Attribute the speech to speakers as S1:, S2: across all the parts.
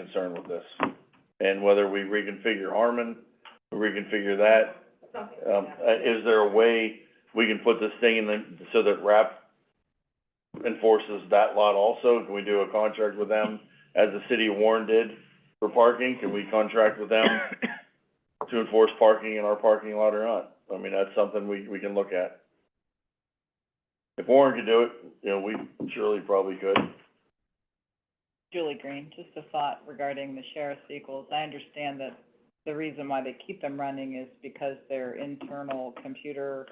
S1: concerned with this. And whether we reconfigure Harmon, reconfigure that, um, uh, is there a way we can put this thing in the, so that RAP enforces that lot also? Can we do a contract with them, as the city of Warren did for parking? Can we contract with them to enforce parking in our parking lot or not? I mean, that's something we, we can look at. If Warren could do it, you know, we surely probably could.
S2: Julie Green, just a thought regarding the sheriff's equals. I understand that the reason why they keep them running is because their internal computer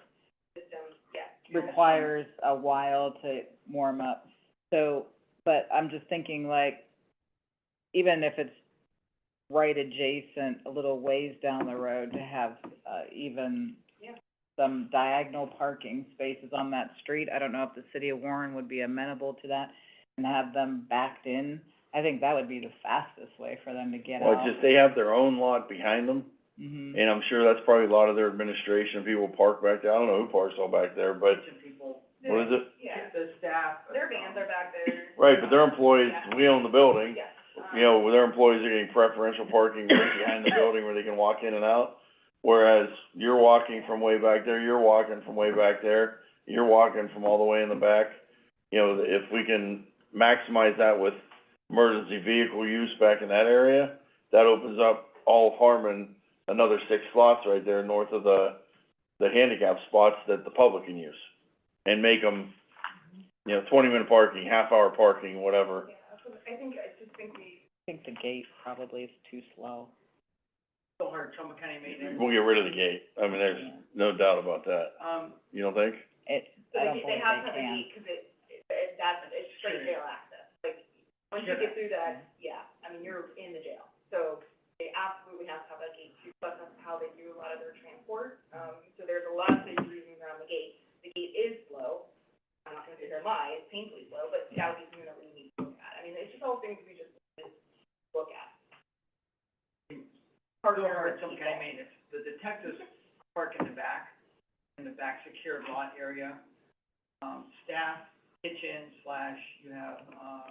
S2: requires a while to warm up. So, but I'm just thinking like, even if it's right adjacent, a little ways down the road to have, uh, even some diagonal parking spaces on that street. I don't know if the city of Warren would be amenable to that and have them backed in. I think that would be the fastest way for them to get out.
S1: Well, just, they have their own lot behind them,
S2: Mhm.
S1: and I'm sure that's probably a lot of their administration, people park back there, I don't know who parks all back there, but what is it?
S3: Yeah. The staff. Their vans are back there.
S1: Right, but their employees, we own the building,
S3: Yes.
S1: you know, their employees are getting preferential parking right behind the building where they can walk in and out. Whereas you're walking from way back there, you're walking from way back there, you're walking from all the way in the back. You know, if we can maximize that with emergency vehicle use back in that area, that opens up all of Harmon, another six slots right there north of the, the handicap spots that the public can use. And make them, you know, twenty minute parking, half hour parking, whatever.
S3: Um, Yeah, that's what- I think, I just think we.
S2: I think the gate probably is too slow.
S3: So hard, Trumbull County maintenance.
S1: We'll get rid of the gate, I mean, there's
S2: Yeah.
S1: no doubt about that,
S3: Um,
S1: you don't think?
S2: It,
S4: So
S2: I
S4: they,
S2: don't
S4: ca-
S2: believe
S4: they have to have a
S2: can.
S4: gate, 'cause it, it, it- that's, it's straight
S3: Sure.
S4: jail access, like, once you get through that, yeah, I mean, you're in the jail. So they absolutely have to have a gate, too, but that's how they do a lot of their transport, um, so there's a lot of cities reasons around the gate. The gate is slow, I'm not gonna say they're lying, it's painfully slow, but that would be something that we need to look at. I mean, it's just all things we just look at.
S3: so hard, Trumbull County maintenance. The detectives park in the back, in the back secured lot area. Um, staff, kitchen slash, you have, uh,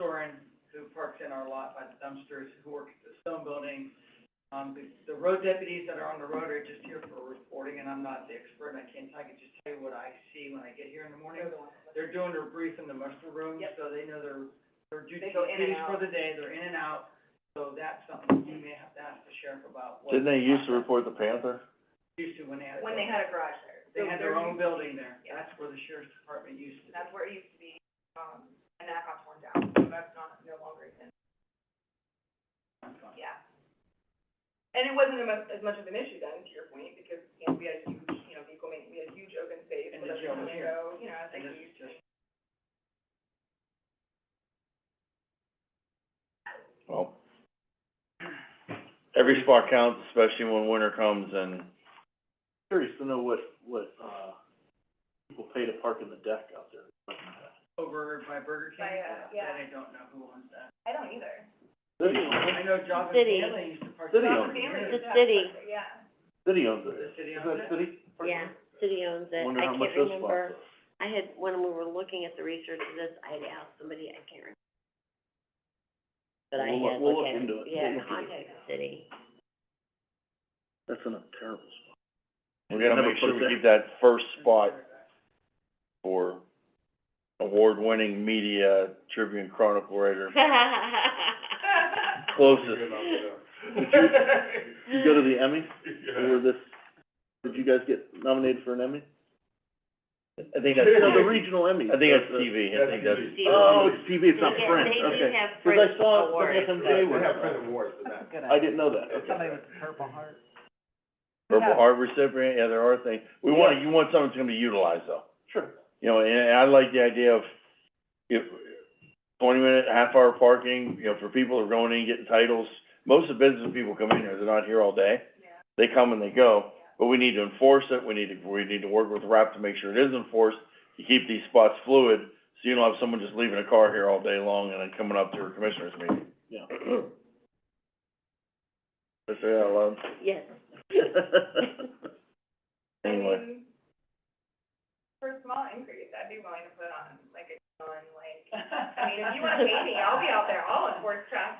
S3: Soren, who parks in our lot by the dumpsters, who works at the stone building. Um, the, the road deputies that are on the road are just here for reporting, and I'm not the expert, and I can't, I can just tell you what I see when I get here in the morning. They're doing their brief in the muster room,
S4: Yep.
S3: so they know their, their duty-
S4: They go in and
S3: duties for
S4: out.
S3: the day, they're in and out. So that's something you may have to ask the sheriff about. what-
S1: Didn't they used to report the Panther?
S3: Used to when they had.
S4: When they had a garage there.
S3: They
S4: So
S3: had
S4: they're
S3: their own
S4: used-
S3: building there,
S4: Yeah.
S3: that's where the sheriff's department used to.
S4: That's where it used to be, um, and that got torn down, so that's not, no longer in Yeah. And it wasn't a mu- as much of an issue then, to your point, because, you know, we had a huge, you know, vehicle maintenance, we had a huge open space,
S3: And
S4: so
S3: the
S4: that's
S3: jail
S4: come
S3: was
S4: and
S3: here.
S4: go, you know, it's
S3: And
S4: like
S3: this
S4: huge.
S3: is just,
S1: Well, every spot counts, especially when winter comes and.
S5: Curious to know what, what, uh, people pay to park in the deck out there.
S3: over by Burger King,
S4: By, uh,
S3: that
S4: yeah.
S3: I don't know who owns that.
S4: I don't either.
S5: City,
S3: I know Job and
S6: City.
S3: Family used to park.
S5: City
S3: there.
S5: owns it.
S4: Family
S6: The
S4: is that,
S6: city.
S4: Yeah.
S5: city owns it.
S3: The city
S5: Isn't
S3: owns
S5: that
S3: it?
S5: city? park
S6: Yeah,
S5: there?
S6: city owns it,
S5: Wonder
S6: I
S5: how much
S6: can't
S5: those spots
S6: remember,
S5: are.
S6: I had, when we were looking at the research of this, I had asked somebody, I can't remember. But I
S5: We'll look-
S6: had
S5: we'll
S6: looked
S5: look
S6: at it,
S5: into it.
S6: yeah,
S5: We'll look into
S6: contact the city,
S5: That's in a terrible spot.
S1: We gotta
S5: Never
S1: make sure
S5: put
S1: we
S5: that-
S1: keep that first spot for award-winning media Tribune Chronicle writer closest.
S5: Did you, you go to the Emmy? Or this, did you guys get nominated for an Emmy?
S1: I think that's,
S5: No, the
S1: TV.
S5: regional Emmy.
S1: I think that's TV, I think that's,
S5: Oh, it's TV, it's not
S6: They get-
S5: print,
S6: they do
S5: okay.
S6: have
S5: Cause
S6: print
S5: I saw some
S6: awards.
S5: FMJ one.
S7: awards,
S2: That's a good
S5: I
S2: idea.
S5: didn't know that, okay.
S2: Somebody with a purple heart.
S1: Purple Heart recipient, yeah, there are things, we want, you want something that's gonna be utilized though.
S5: Sure.
S1: You know, and, and I like the idea of, if, twenty minute, half hour parking, you know, for people who are going in, getting titles. Most of the business people come in here, they're not here all day.
S4: Yeah.
S1: They come and they go, but we need to enforce it, we need to, we need to work with RAP to make sure it is enforced, to keep these spots fluid, so you don't have someone just leaving a car here all day long and then coming up to a commissioner's meeting.
S5: Yeah.
S1: Just say that loud.
S6: Yes,
S4: I
S1: Anyway.
S4: mean, For a small increase, I'd be willing to put on, like, a, on, like, I mean, if you wanna pay me, I'll be out there, I'll enforce traffic